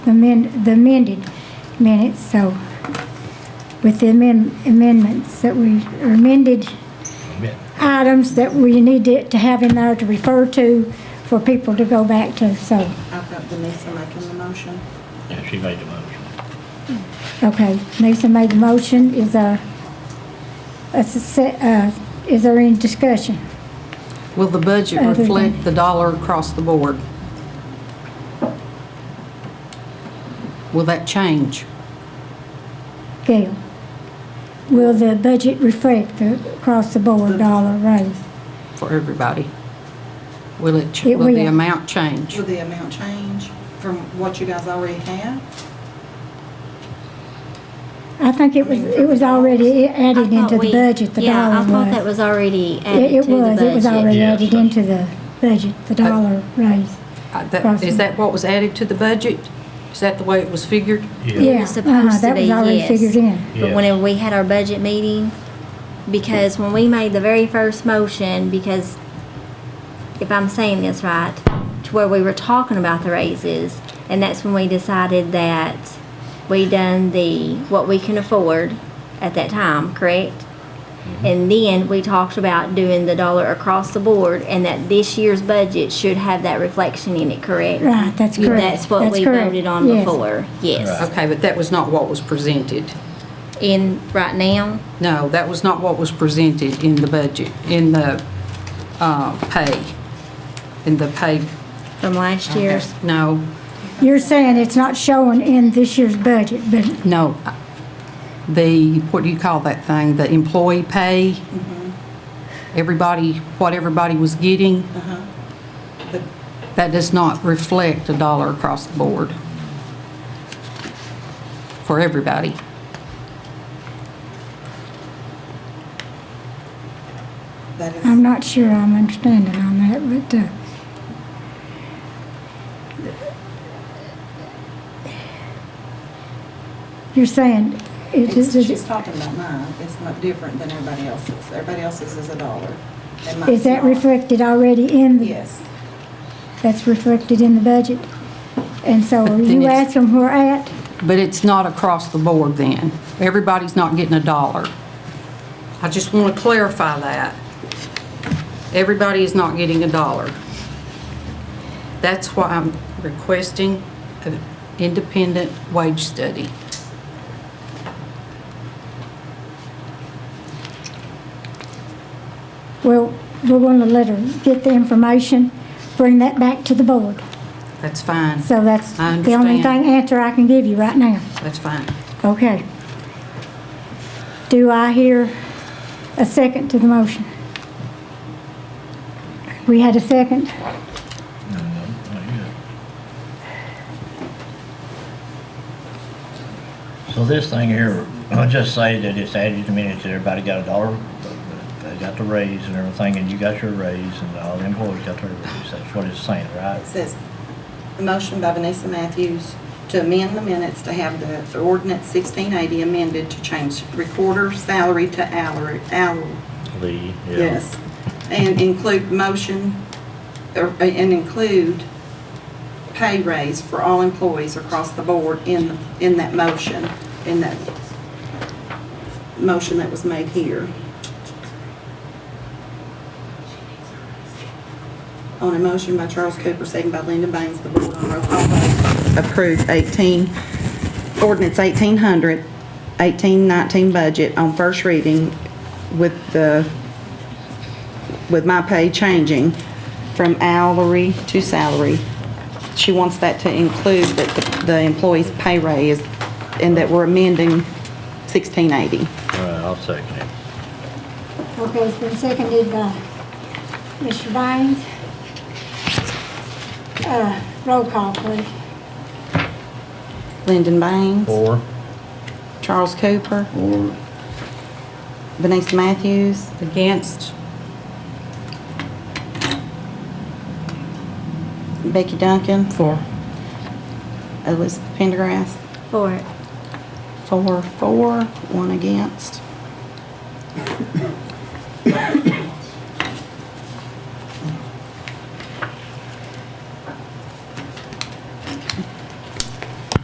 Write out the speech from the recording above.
amend, the amended minutes, so with the amend- amendments that we, or amended items that we need to to have in there to refer to for people to go back to, so, I've got Vanessa making the motion. Yeah, she made the motion. okay. Lisa made the motion, is there, a suce- uh, is there any discussion? Will the budget Other than- reflect the dollar across the board? Will that change? Gail? Will the budget reflect the across-the-board dollar raise? for everybody? Will it, ch- It will the will. amount change? Will the amount change from what you guys already have? I think it was, it was already I added thought into we- the budget, the Yeah, I dollar thought that was. was already added It to it the budget. was, it was already Yes. added into the budget, the dollar raise. Uh, that- Is that what was added to the budget? Is that the way it was figured? Yeah, was uh-huh, supposed to that was be, already yes. figured in. Yes. But whenever we had our budget meeting, because when we made the very first motion, because if I'm saying this right, to where we were talking about the raises, and that's when we decided that we done the, what we can afford at that time, correct? And then we talked about doing the dollar across the board, and that this year's budget should have that reflection in it, correct? Right, that's You- correct. That's what That's we correct. voted on Yes. before, yes. Okay, but that was not what was presented. And right now, No, that was not what was presented in the budget, in the uh, pay, in the pay. from last year's, No, You're saying it's not showing in this year's budget, but no. The, what do you call that thing? The employee pay? Everybody, what everybody was getting? The- That does not reflect a dollar across the board for everybody. That is, I'm not sure I'm understanding on that, but, uh, you're saying it it's- is, she's is talking about mine. It's not different than everybody else's. Everybody else's is a dollar. and mine's that not. reflected already in the? Yes. That's reflected in the budget. And so are you Then it's- asking where at? But it's not across the board then. Everybody's not getting a dollar. I just want to clarify that. Everybody is not getting a dollar. That's why I'm requesting an independent wage study. Well, we're gonna let her get the information, bring that back to the board. That's fine. So that's I the only understand. thing, answer I can give you right now. That's fine. Okay. Do I hear a second to the motion? We had a second? No, no, not yet. So this thing here, I'll just say that it's added to minutes, that everybody got a dollar, but they got the raise and everything, and you got your raise, and all the employees got their raise, that's what it's saying, right? It says, a motion by Vanessa Matthews to amend the minutes to have the ordinance sixteen eighty amended to change recorder's salary to hourly, hourly, Lee, yes. And include motion, or, and include pay raise for all employees across the board in, in that motion, in that motion that was made here. On a motion by Charles Cooper, second by Linda Baines, the board on roll call vote. Approve 18, ordinance 1800, 1819 budget on first reading with the, with my pay changing from hourly to salary. She wants that to include that the- the employee's pay raise and that we're amending 1680. All right, I'll second it. Okay, it's been seconded by Mr. Bynes. Uh, roll call, please. Lyndon Baines. Four. Charles Cooper. Vanessa Matthews. Against? Becky Duncan. Four. Elizabeth Pendergrass. for it. Four, four, one against.